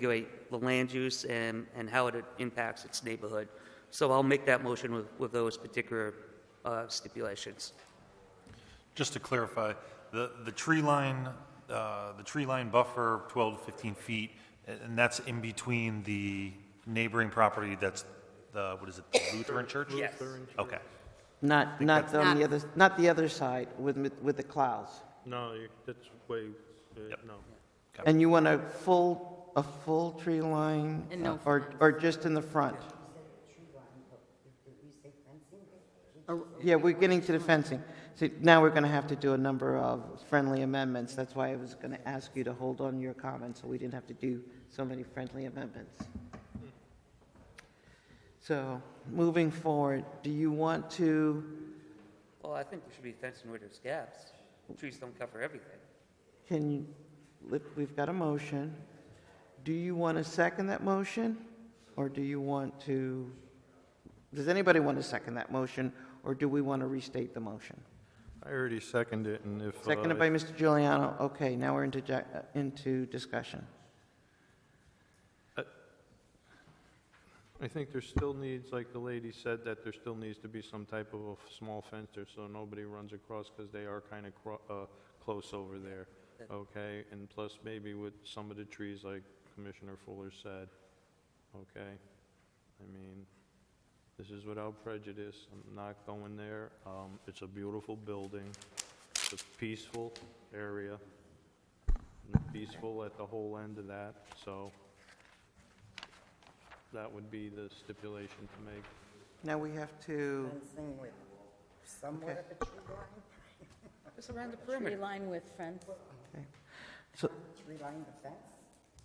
regulate the land use and, and how it impacts its neighborhood. So I'll make that motion with, with those particular uh, stipulations. Just to clarify, the, the tree line, uh, the tree line buffer, 12 to 15 feet, a- and that's in between the neighboring property that's, the what is it, the Lutheran church? Yes. Okay. Not, not on the Not- other, not the other side with, with the clouds. No, you- that's way, uh, no. And you want a full, a full tree line? And no Or, or just in the front? Or- Oh, Yeah, we're getting to the fencing. See, now we're going to have to do a number of friendly amendments. That's why I was going to ask you to hold on to your comments, so we didn't have to do so many friendly amendments. So, moving forward, do you want to, Well, I think we should be fencing where there's gaps. Trees don't cover everything. can you, let- we've got a motion. Do you want to second that motion? Or do you want to, does anybody want to second that motion? Or do we want to restate the motion? I already seconded it, and if... Seconded by Mr. Giuliano. Okay, now we're into, ja- uh, into discussion. I think there still needs, like the lady said, that there still needs to be some type of a f- small fence there so nobody runs across because they are kind of cro- uh, close over there, okay? And plus maybe with some of the trees, like Commissioner Fuller said, okay? I mean, this is without prejudice, I'm not going there. Um, It's a beautiful building, it's a peaceful area, and peaceful at the whole end of that, so that would be the stipulation to make. Now we have to, fencing with somewhat of a tree line, Just around the Tree perimeter. line with fence. so, tree line the fence?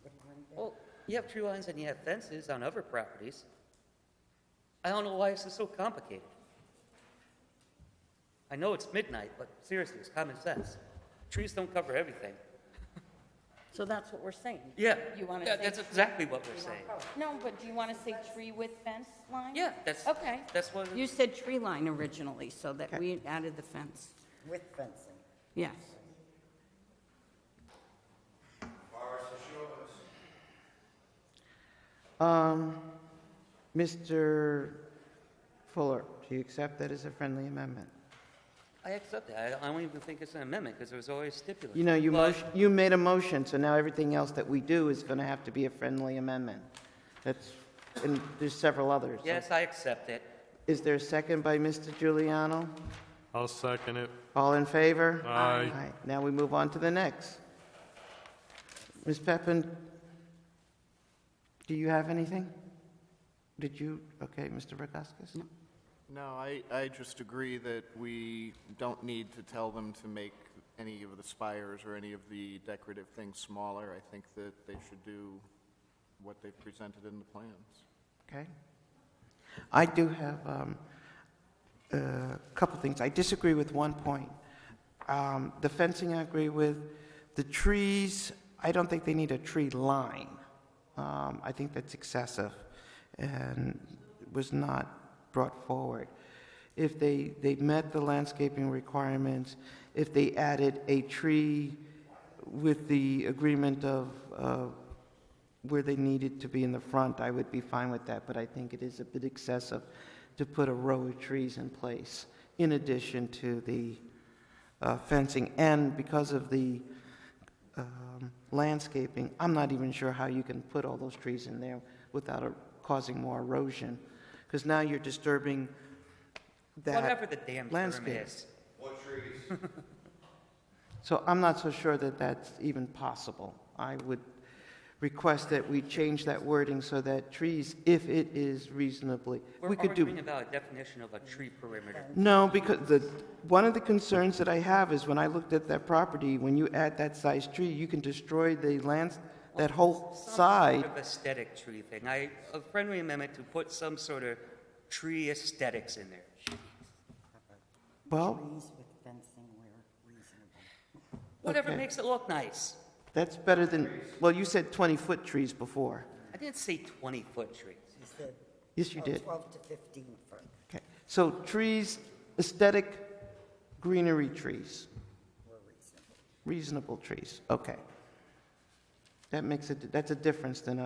Would you mind that? Well, you have tree lines and you have fences on other properties. I don't know why this is so complicated. I know it's midnight, but seriously, it's common sense. Trees don't cover everything. So that's what we're saying. Yeah. You want Yeah, to That's say, exactly what we're saying. no, but do you want to say tree with fence line? Yeah, that's, Okay. that's what, You said tree line originally, so that we added the fence. With fencing. Yes. um, Mr. Fuller, do you accept that as a friendly amendment? I accept that. I I don't even think it's an amendment because it was always stipulated. You know, you, But- motion- you made a motion, so now everything else that we do is going to have to be a friendly amendment. That's, and there's several others. So Yes, I accept it. Is there a second by Mr. Giuliano? I'll second it. All in favor? Aye. Aye. Now we move on to the next. Ms. Peppin, do you have anything? Did you, okay, Mr. Rogaskis? No. No, I, I just agree that we don't need to tell them to make any of the spires or any of the decorative things smaller. I think that they should do what they've presented in the plans. Okay. I do have um, a couple things. I disagree with one point. Um, The fencing, I agree with. The trees, I don't think they need a tree line. Um, I think that's excessive and was not brought forward. If they, they met the landscaping requirements, if they added a tree with the agreement of, uh, where they needed to be in the front, I would be fine with that, but I think it is a bit excessive to put a row of trees in place in addition to the uh, fencing. And because of the um, landscaping, I'm not even sure how you can put all those trees in there without uh, causing more erosion, because now you're disturbing that Whatever the damn term landscape. is. So I'm not so sure that that's even possible. I would request that we change that wording so that trees, if it is reasonably, We're we could arguing do. about a definition of a tree perimeter. No, because the, one of the concerns that I have is when I looked at that property, when you add that size tree, you can destroy the lands, that whole Some side. sort of aesthetic tree thing. I, a friendly amendment to put some sort of tree aesthetics in there. Well, Trees with fencing where reasonable. Whatever Okay. makes it look nice. that's better than, well, you said 20-foot trees before. I didn't say 20-foot trees. You said, Yes, you oh, did. 12 to 15 foot. Okay. So trees, aesthetic greenery trees. Reasonable trees, okay. That makes it, that's a difference than a